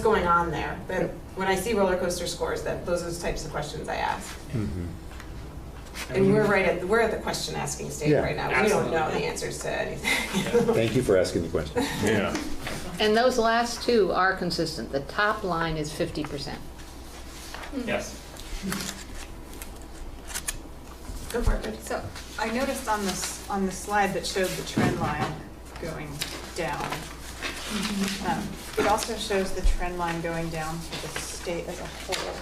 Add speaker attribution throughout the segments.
Speaker 1: going on there, that when I see roller coaster scores, that those are the types of questions I ask.
Speaker 2: Mm-hmm.
Speaker 1: And we're right at, we're at the question asking stage
Speaker 2: Yeah.
Speaker 1: right now. We don't know the answers to anything.
Speaker 2: Thank you for asking the question.
Speaker 3: Yeah,
Speaker 4: And those last two are consistent. The top line is fifty percent.
Speaker 3: yes.
Speaker 1: Go for it.
Speaker 5: So I noticed on this, on the slide that showed the trend line going down. um, It also shows the trend line going down for the state as a whole.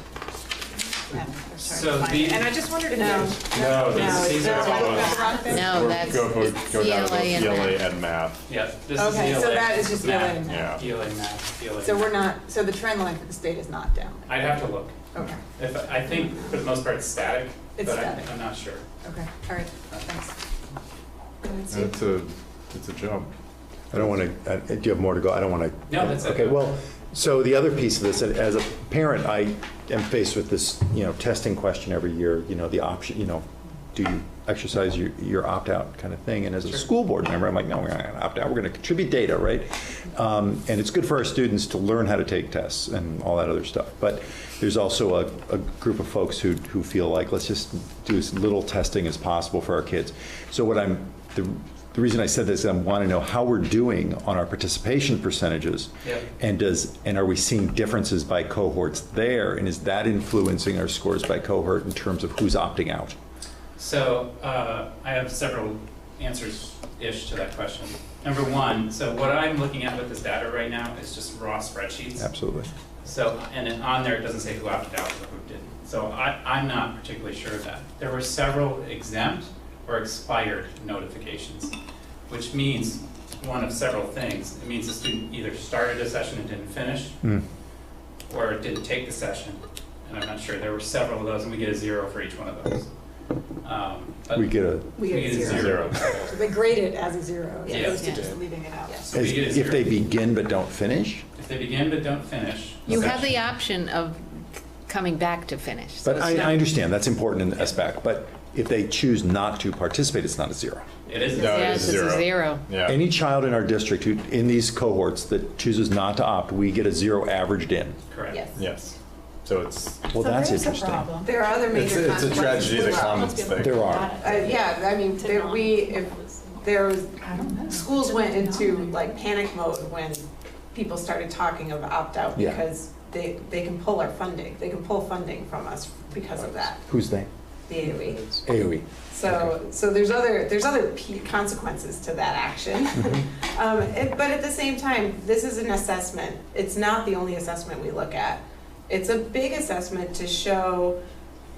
Speaker 5: And I'm sorry
Speaker 3: So
Speaker 5: to find it.
Speaker 3: the-
Speaker 5: And I just wondered if
Speaker 1: No.
Speaker 5: there's.
Speaker 6: No,
Speaker 1: No,
Speaker 6: these,
Speaker 1: it's
Speaker 6: these are
Speaker 1: not
Speaker 6: all
Speaker 1: like
Speaker 6: us.
Speaker 1: that.
Speaker 4: No,
Speaker 6: Go-
Speaker 4: that's
Speaker 6: Go, go, go down to
Speaker 4: ELA and
Speaker 6: ELA
Speaker 4: math.
Speaker 6: and math.
Speaker 3: Yeah, this is
Speaker 5: Okay,
Speaker 3: ELA.
Speaker 5: so that is just ELA and
Speaker 6: math.
Speaker 3: ELA math, ELA.
Speaker 5: So we're not, so the trend line for the state is not down.
Speaker 3: I'd have to look.
Speaker 5: Okay,
Speaker 3: If, I think for the most part it's static,
Speaker 5: It's
Speaker 3: but I-
Speaker 5: static.
Speaker 3: I'm not sure.
Speaker 5: okay, all right, thanks.
Speaker 6: It's a, it's a jump.
Speaker 2: I don't want to, do you have more to go? I don't want to.
Speaker 3: No, that's it.
Speaker 2: Okay, well, so the other piece of this, and as a parent, I am faced with this, you know, testing question every year, you know, the option, you know, do you exercise your, your opt-out kind of thing? And as a school board member, I'm like, no, we're not going to opt out, we're going to contribute data, right? Um, And it's good for our students to learn how to take tests and all that other stuff. But there's also a, a group of folks who, who feel like, let's just do as little testing as possible for our kids. So what I'm, the the reason I said this, I want to know how we're doing on our participation percentages.
Speaker 3: Yep.
Speaker 2: And does, and are we seeing differences by cohorts there? And is that influencing our scores by cohort in terms of who's opting out?
Speaker 3: So uh, I have several answers-ish to that question. Number one, so what I'm looking at with this data right now is just raw spreadsheets.
Speaker 2: Absolutely.
Speaker 3: So, and then on there, it doesn't say who opted out or who didn't. So I, I'm not particularly sure of that. There were several exempt or expired notifications, which means one of several things. It means the student either started a session and didn't finish,
Speaker 2: Hmm.
Speaker 3: or didn't take the session. And I'm not sure, there were several of those, and we get a zero for each one of those. Um, but
Speaker 2: We get a,
Speaker 3: we get a zero.
Speaker 5: They grade it as a zero as
Speaker 3: Yeah.
Speaker 5: opposed to
Speaker 4: Yeah.
Speaker 5: just leaving it out.
Speaker 1: Yes.
Speaker 3: So we
Speaker 2: as-
Speaker 3: get a
Speaker 2: if they
Speaker 3: zero.
Speaker 2: begin but don't finish?
Speaker 3: If they begin but don't finish,
Speaker 4: You have the option of coming back to finish. So
Speaker 2: But
Speaker 4: it's
Speaker 2: I,
Speaker 4: not-
Speaker 2: I understand, that's important in the SBAC, but if they choose not to participate, it's not a zero.
Speaker 3: it is a
Speaker 6: No,
Speaker 3: zero.
Speaker 6: it
Speaker 4: Yes,
Speaker 6: is
Speaker 4: it's a
Speaker 6: uh, zero.
Speaker 4: zero.
Speaker 6: Yeah.
Speaker 2: Any child in our district who, in these cohorts that chooses not to opt, we get a zero averaged in.
Speaker 3: Correct.
Speaker 1: Yes.
Speaker 6: Yes. So it's,
Speaker 2: Well, that's
Speaker 5: So there's a
Speaker 2: interesting.
Speaker 5: problem.
Speaker 1: There are other
Speaker 6: it's,
Speaker 1: major
Speaker 6: it's
Speaker 1: consequences.
Speaker 6: a tragedy that
Speaker 1: as well.
Speaker 6: commons thing.
Speaker 2: There are.
Speaker 1: Uh, yeah, I mean, there, we, if, there was,
Speaker 5: I don't know.
Speaker 1: schools went into like panic mode when people started talking of opt-out
Speaker 2: Yeah.
Speaker 1: because they, they can pull our funding, they can pull funding from us because of that,
Speaker 2: Who's they? E.
Speaker 1: the E. AOE.
Speaker 2: AOE.
Speaker 1: So, so there's other, there's other p- consequences to that action. Um, it- But at the same time, this is an assessment. It's not the only assessment we look at. It's a big assessment to show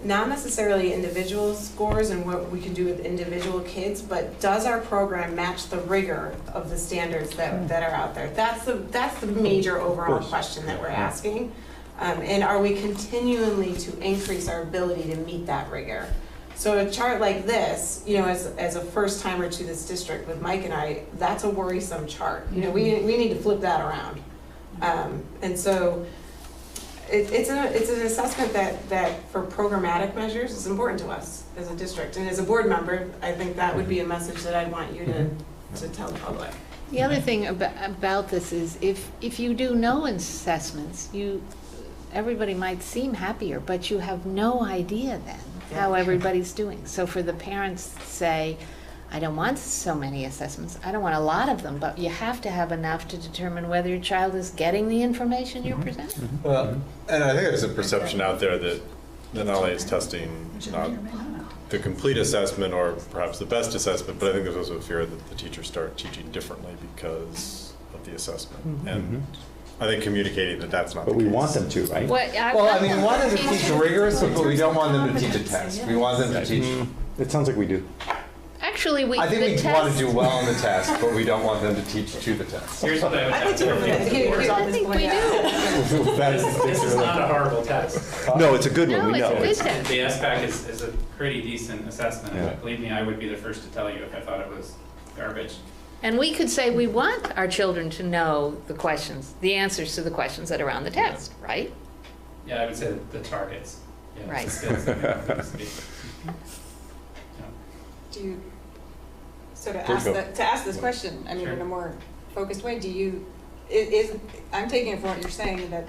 Speaker 1: not necessarily individual scores and what we can do with individual kids, but does our program match the rigor of the standards that, that are out there? That's the, that's the major
Speaker 2: Hmm. Of
Speaker 1: overall
Speaker 2: course.
Speaker 1: question that we're asking. Um, And are we continually to increase our ability to meet that rigor? So a chart like this, you know, as, as a first timer to this district with Mike and I, that's a worrisome chart. You know, we, we need to flip that around. Um, and so it, it's a, it's an assessment that, that for programmatic measures is important to us as a district. And as a board member, I think that would be a message that I'd want you to, to tell the public.
Speaker 4: The other thing about, about this is if, if you do no assessments, you, everybody might seem happier, but you have no idea then how
Speaker 1: Yeah.
Speaker 4: everybody's doing. So for the parents to say, I don't want so many assessments, I don't want a lot of them, but you have to have enough to determine whether your child is getting the information you're
Speaker 7: Mm-hmm.
Speaker 4: presenting.
Speaker 6: Well, and I think there's a perception out there that that not only is testing not the complete assessment or perhaps the best assessment, but I think there's also a fear that the teachers start teaching differently because of the assessment. And I think communicating that that's not the
Speaker 2: But
Speaker 6: case.
Speaker 2: we want them to, right?
Speaker 4: What, I.
Speaker 7: Well, I mean, we want them to teach rigorous, but we don't want them to teach a test. We want them to teach.
Speaker 2: It sounds like we do.
Speaker 4: Actually, we,
Speaker 7: I
Speaker 4: the
Speaker 7: think we want
Speaker 4: test,
Speaker 7: to do well on the test, but we don't want them to teach to the test.
Speaker 3: Here's what I would
Speaker 1: I
Speaker 3: have
Speaker 1: think
Speaker 3: to
Speaker 1: you
Speaker 3: review.
Speaker 1: here's all
Speaker 4: I
Speaker 1: this
Speaker 4: think
Speaker 1: going
Speaker 4: we do.
Speaker 7: That is the
Speaker 3: This is not a horrible test.
Speaker 2: No, it's a good one,
Speaker 4: No,
Speaker 2: we
Speaker 4: it's
Speaker 2: know.
Speaker 4: a good
Speaker 2: It's-
Speaker 4: test.
Speaker 3: The SBAC is, is a pretty decent assessment,
Speaker 2: Yeah.
Speaker 3: believe me, I would be the first to tell you if I thought it was garbage.
Speaker 4: And we could say we want our children to know the questions, the answers to the questions that are on the test, right?
Speaker 3: Yeah, I would say the targets, yeah, the
Speaker 4: Right.
Speaker 3: skills. Right.
Speaker 5: Do you, so to
Speaker 6: Please
Speaker 5: ask
Speaker 6: go.
Speaker 5: that, to ask this question, I mean,
Speaker 3: Sure.
Speaker 5: in a more focused way, do you, i- is, I'm taking it from what you're saying, that